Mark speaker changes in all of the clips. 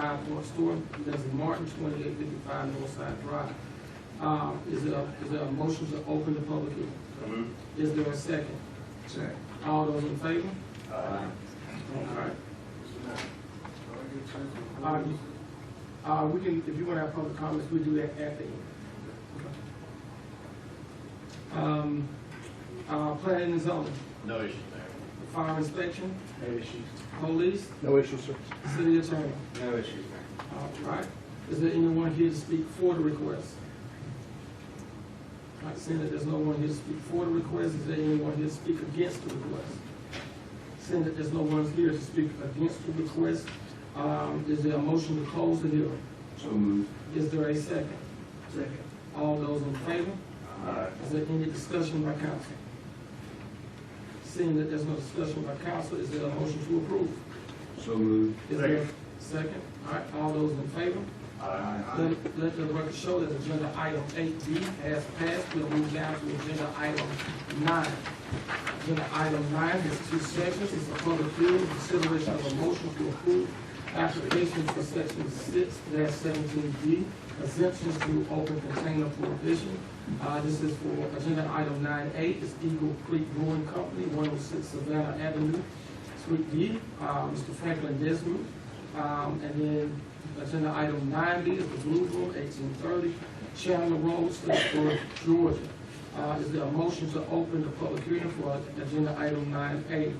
Speaker 1: for a store, Leslie Martin, twenty-eight fifty-five Northside Drive. Um, is there, is there a motion to open the public hearing?
Speaker 2: So move.
Speaker 1: Is there a second?
Speaker 3: Second.
Speaker 1: All those in favor?
Speaker 2: Aye.
Speaker 1: Alright,
Speaker 3: All
Speaker 1: uh,
Speaker 3: right.
Speaker 1: you- uh, we can, if you wanna have public comments, we do that at the end. Um, uh, planning and zoning,
Speaker 2: No issues there.
Speaker 1: fire inspection,
Speaker 4: No issues.
Speaker 1: police,
Speaker 4: No issues, sir.
Speaker 1: city attorney.
Speaker 4: No issues, ma'am.
Speaker 1: All right, is there anyone here to speak for the request? All right, seeing that there's no one here to speak for the request, is there anyone here to speak against the request? Seeing that there's no one here to speak against the request, um, is there a motion to close the hearing?
Speaker 3: So moved.
Speaker 1: Is there a second?
Speaker 3: Second.
Speaker 1: All those in favor?
Speaker 2: Aye.
Speaker 1: Is there any discussion by council? Seeing that there's no discussion by council, is there a motion to approve?
Speaker 3: So moved.
Speaker 1: Is there a Second, all right, all those in favor?
Speaker 3: Aye.
Speaker 1: Let let the record show that agenda item eight B has passed, we'll move down to agenda item nine. Agenda item nine has two sections, it's a public hearing, consideration of a motion to approve application for section six seventeen B, exemptions to open container prohibition. Uh, this is for agenda item nine A, it's Eagle Creek Brewing Company, one oh six Savannah Avenue, Suite D, uh, Mr. Franklin Desmond. Um, and then agenda item nine B is the Blue Room, eighteen thirty, Chandler Road, Statesboro, Georgia. Uh, is there a motion to open the public hearing for agenda item nine A?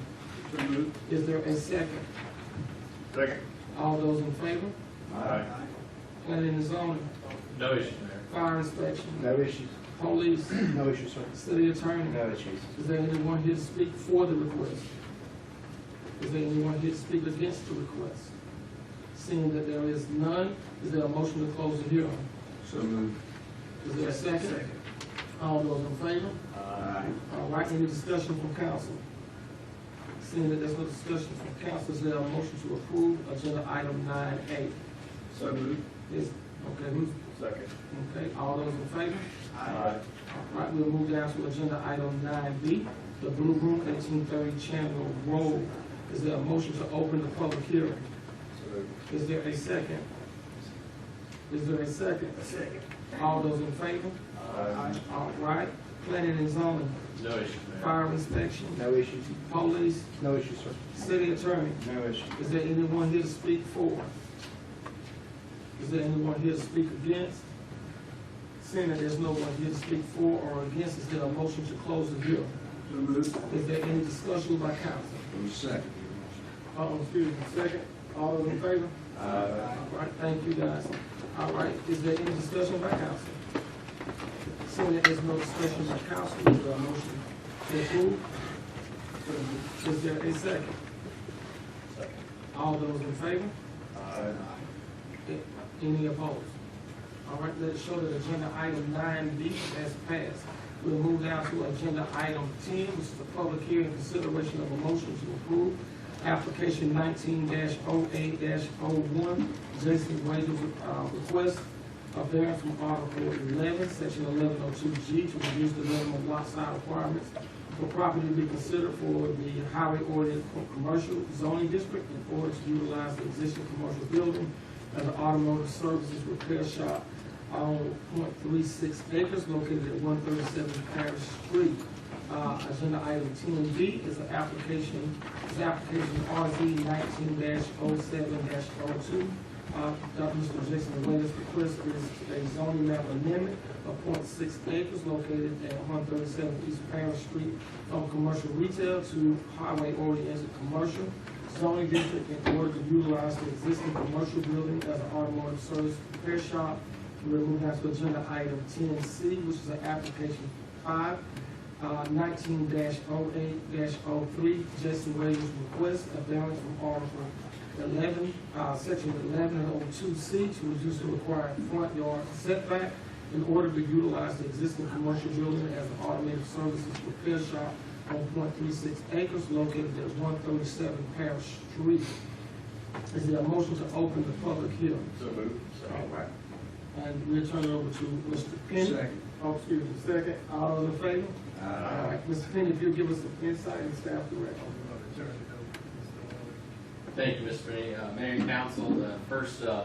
Speaker 2: So move.
Speaker 1: Is there a second?
Speaker 2: Second.
Speaker 1: All those in favor?
Speaker 2: Aye.
Speaker 1: Planning and zoning,
Speaker 2: No issues there.
Speaker 1: fire inspection,
Speaker 4: No issues.
Speaker 1: police,
Speaker 4: No issues, sir.
Speaker 1: city attorney.
Speaker 4: No issues.
Speaker 1: Is there anyone here to speak for the request? Is there anyone here to speak against the request? Seeing that there is none, is there a motion to close the hearing?
Speaker 3: So moved.
Speaker 1: Is there a second? All those in favor?
Speaker 2: Aye.
Speaker 1: All right, any discussion from council? Seeing that there's no discussion from council, is there a motion to approve agenda item nine A?
Speaker 2: So move.
Speaker 1: Is, okay, who's,
Speaker 2: Second.
Speaker 1: okay, all those in favor?
Speaker 2: Aye.
Speaker 1: All right, we'll move down to agenda item nine B, the Blue Room, eighteen thirty Chandler Road. Is there a motion to open the public hearing?
Speaker 2: So move.
Speaker 1: Is there a second? Is there a second? Second. All those in favor?
Speaker 2: Aye.
Speaker 1: All right, planning and zoning,
Speaker 2: No issues there.
Speaker 1: fire inspection,
Speaker 4: No issues.
Speaker 1: police,
Speaker 4: No issues, sir.
Speaker 1: city attorney.
Speaker 4: No issues.
Speaker 1: Is there anyone here to speak for? Is there anyone here to speak against? Seeing that there's no one here to speak for or against, is there a motion to close the hearing?
Speaker 3: So moved.
Speaker 1: Is there any discussion by council?
Speaker 3: second.
Speaker 1: Uh-oh, excuse me, second. All those in favor? All right, thank you guys. All right, is there any discussion by council? Seeing that there's no discussion by council, is there a motion to approve? Is there a second?
Speaker 2: Second.
Speaker 1: All those in favor?
Speaker 2: Aye.
Speaker 1: Any opposed? All right, let's show that agenda item nine B has passed. We'll move down to agenda item ten, which is the public hearing consideration of a motion to approve application nineteen oh 8 one Jason Wade's, uh, request of variance from Article eleven, section eleven oh two G to reduce the minimum lot size requirements for property to be considered for the highway ordinance for commercial zoning district in order to utilize the existing commercial building as an automotive services repair shop on point three six acres located at one thirty-seven Parish Street. Uh, agenda item ten B is an application, is application RZ nineteen oh 7 2 Uh, Dr. Mr. Jason Williams request is a zoning map amendment of point six acres located at one thirty-seven East Parish Street from commercial retail to highway oriented commercial zoning district in order to utilize the existing commercial building as an automotive service repair shop. We're moving on to agenda item ten C, which is an application five, uh, nineteen oh 8 3 Jason Williams request a variance from Article eleven, uh, section eleven oh two C to reduce the required front yard setback in order to utilize the existing commercial building as an automated services repair shop on point three six acres located at one thirty-seven Parish Street. Is there a motion to open the public hearing?
Speaker 2: So move.
Speaker 1: All
Speaker 2: Second.
Speaker 1: right. And we'll turn it over to Mr. Penny.
Speaker 3: Second.
Speaker 1: Oh, excuse me, second. All those in favor? All
Speaker 3: Aye.
Speaker 1: right, Mr. Penny, if you'll give us some insight and staff direction.
Speaker 2: Thank you, Mr. Rennie. Uh, Mayor and council, the first, uh,